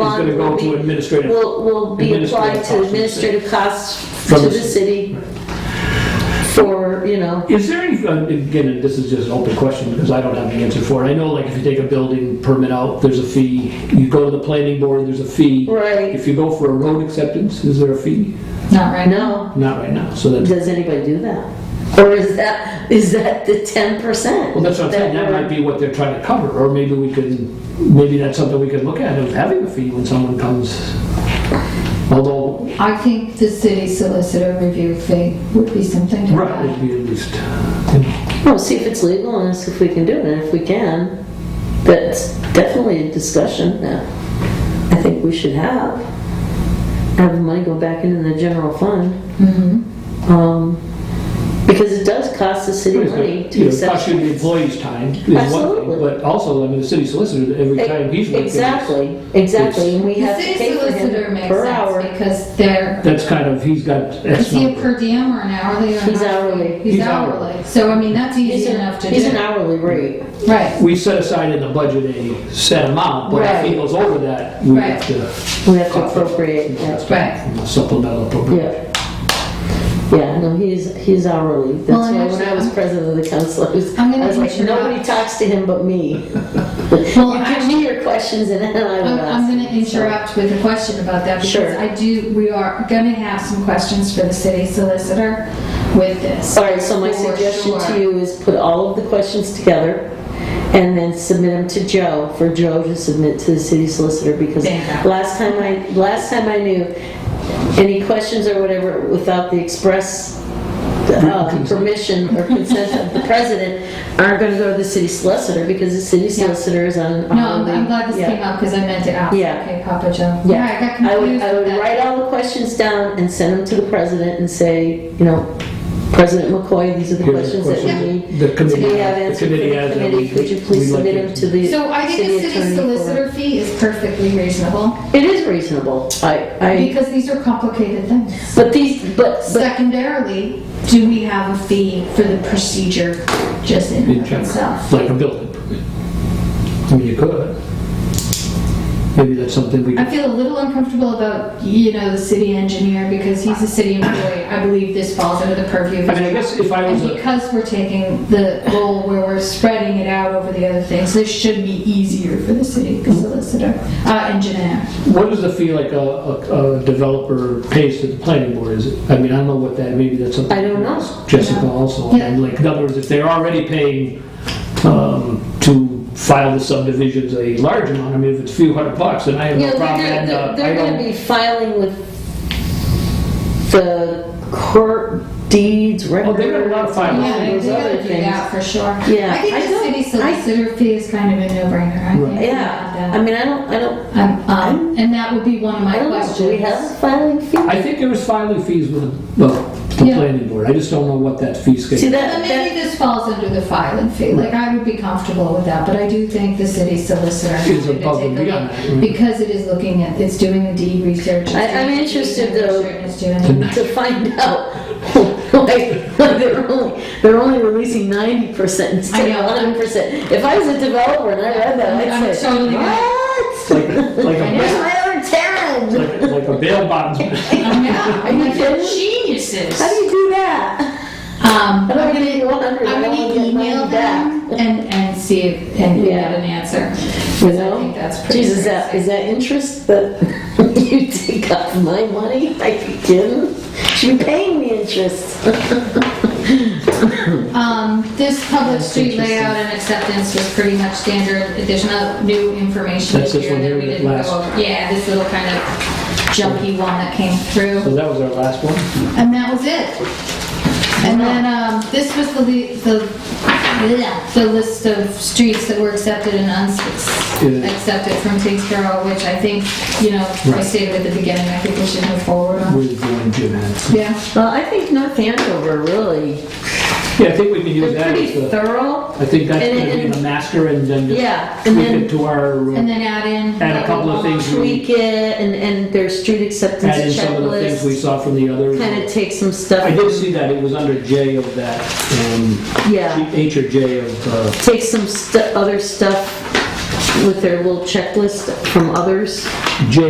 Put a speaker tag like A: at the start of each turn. A: is
B: bond
A: gonna go
B: will
A: to
B: be,
A: administrative.
B: will, will be applied to administrative costs
A: From
B: to
A: the
B: the
A: ci-
B: city for, you know,
A: Is there any, uh, again, and this is just an open question because I don't have the answer for it. I know like if you take a building permit out, there's a fee. You go to the planning board, there's a fee.
B: right,
A: If you go for a road acceptance, is there a fee?
C: Not right now.
B: no.
A: Not right now, so that's,
B: Does anybody do that? Or is that, is that the ten percent?
A: well, that's what I'm saying, that might be what they're trying to cover. Or maybe we can, maybe that's something we could look at, of having a fee when someone comes. Although,
C: I think the city solicitor review fee would be something to
A: right,
C: add.
A: it'd be at least,
B: Well, see if it's legal and see if we can do it, and if we can, that's definitely a discussion that I think we should have. Have the money go back into the general fund.
C: Mm-hmm.
B: Um, Because it does cost the city
A: It's gonna-
B: money
A: you
B: to
A: know, cost you the
B: accept.
A: employee's time is one
B: Absolutely.
A: thing, but also, I mean, the city solicitor, every time he's working.
B: Exactly, exactly, and we
C: The
B: have to
C: city
B: pay for
C: solicitor
B: him
C: makes
B: per hour.
C: sense because they're,
A: That's kind of, he's got.
C: is
A: X
C: he a
A: number.
C: per diem or an hourly or an
B: He's hourly.
C: He's
A: He's hourly.
C: hourly. So, I mean, that's
B: He's
C: easy
B: an-
C: enough to
B: He's an
C: do.
B: hourly rate.
C: Right.
A: We set aside in the budget a set amount, but if he
B: Right.
A: goes over that, we have to
B: We have to appropriate that.
C: Right.
A: supplemental appropriation.
B: Yeah. Yeah, no, he's, he's hourly.
C: Well,
B: That's
C: and
B: why when I was
C: actually-
B: president of the council, I was,
C: I'm gonna
B: I was
C: take
B: like,
C: your
B: nobody
C: notes."
B: talks to him but me.
C: Well,
B: You give me your questions and then I
C: I'm,
B: will ask.
C: I'm going to
B: him, so.
C: interrupt with a question about that because
B: Sure.
C: I do. We are going to have some questions for the city solicitor with this.
B: All right, so my
C: For
B: suggestion
C: sure.
B: to you is put all of the questions together and then submit them to Joe, for Joe to submit to the city solicitor, because
C: Yeah.
B: last time I, last time I knew, any questions or whatever without the express uh, permission or consent of the president aren't gonna go to the city solicitor, because the city
C: Yeah.
B: solicitor is on.
C: No, I'm, I'm glad this
B: Yeah.
C: came up because I meant to ask.
B: Yeah.
C: Okay, Papa Joe.
B: Yeah.
C: I got
B: I would,
C: confused.
B: I would
C: with that.
B: write all the questions down and send them to the president and say, you know, President McCoy, these are the
A: Here are
B: questions that
A: questions
B: we need.
A: The
B: Do we
A: committee,
B: have
A: the
B: answers for
A: committee
B: the
A: has. and
B: committee?
A: we-
B: Could you
A: we'd
B: please
A: like
B: submit them to the
C: So I think the city
B: attorney for-
C: solicitor fee is perfectly reasonable
B: It is reasonable, I, I,
C: because these are complicated things.
B: but these, but, but,
C: Secondarily, do we have a fee for the procedure just in
A: In
C: and of
A: general,
C: itself?
A: like a building permit. I mean, you could. Maybe that's something we
C: I
A: could,
C: feel a little uncomfortable about, you know, the city engineer because he's a city employee. I believe this falls under the purview of
A: I mean, I guess if I was
C: And
A: a,
C: because we're taking the role where we're spreading it out over the other things, this should be easier for the city solicitor, uh, engineer.
A: what is the fee like a, a a developer pays to the planning board? Is it, I mean, I don't know what that, maybe that's something.
B: I don't know.
A: Jessica
C: Yeah.
A: also,
C: Yeah.
A: and like, in other words, if they're already paying, um, to file the subdivisions a large amount, I mean, if it's a few hundred bucks, then I have
B: you know,
A: no problem.
B: they're,
A: and, uh,
B: they're, they're
A: I
B: gonna
A: don't-
B: be filing with the court deeds
A: Oh,
B: record.
A: they got a lot of
B: all
A: filing.
C: Yeah, they
B: those
C: gotta
B: other
C: do
B: things.
C: that for sure.
B: Yeah,
C: I think
B: I
C: the
B: don't-
C: city
B: I-
C: solicitor fee is kind of a no-brainer. I think we
B: Yeah, I
C: have that.
B: mean, I don't, I don't,
C: Um, um, And that would be one of my
B: I don't know,
C: questions.
B: do we have a filing fee?
A: I think there was filing fees with, well, the
C: Yeah.
A: planning board, I just don't know what that fee
B: See,
A: schedule.
C: And
B: that, that,
C: then maybe this falls under the filing fee, like I would be comfortable with that, but I do think the city solicitor
A: Is
C: should
A: above
C: take
A: and
C: a
A: beyond that, Mm.
C: look.
A: right?
C: Because it is looking at, it's doing the deed research. it's
B: I-
C: doing
B: I'm
C: the deed
B: interested, though,
C: research, It's doing.
B: to find out, like, they're only, they're only releasing ninety percent
C: I
B: instead of
C: know.
B: hundred percent. If I was a developer and I read that,
C: I'm- I'm
B: I'd say,
C: totally with
B: what?
A: Like, like
C: I
A: a,
C: know.
B: Where's my other ten?
A: like like a bail bondsman.
C: Oh, yeah.
B: Are you kidding?
C: Geniuses.
B: How do you do that?
C: Um,
B: I don't get any one hundred, I
C: I'm
B: don't
C: gonna
B: get
C: email
B: mine back.
C: them and, and see if, and
B: Yeah.
C: get an answer.
B: You
C: Because I
B: know?
C: think that's pretty
B: Geez, is that,
C: crazy.
B: is that interest that you take up my money? Are you kidding? Should be paying me interest.
C: Um, this public street layout and acceptance was pretty much standard. There's no new information
A: That's this
C: this year
A: one
C: that
A: here,
C: we
A: the
C: didn't go
A: last-
C: over. Yeah, this little kind of junky one that came
A: So
C: through.
A: that was our last one.
B: Uh-huh.
C: And that was it. And then, um, this was the, li- the, bleh, the list of streets that were accepted and
A: Yeah.
C: unaccepted from Tingsboro, which I think, you know, I
A: Right.
C: stated at the beginning, I think we should move forward on.
A: Where's the one Jim had?
C: Yeah.
B: Well, I think North Andover really,
A: Yeah, I think we can
B: they're
A: use that
B: pretty
A: as the,
B: thorough.
A: I think that's
B: And-
A: gonna be
B: and-
A: the master and then just
B: Yeah, and
A: tweak it
B: then
A: to our,
C: And
A: uh,
C: then add in.
A: add a couple of things, we
B: tweak it and, and their street acceptance
A: add in some of the things we
B: checklist.
A: saw from the others.
B: Kind of take some stuff.
A: I did see that, it was under J of that, um,
B: Yeah,
A: H or J of, uh,
B: take some stu- other stuff with their little checklist from others.
A: Jay,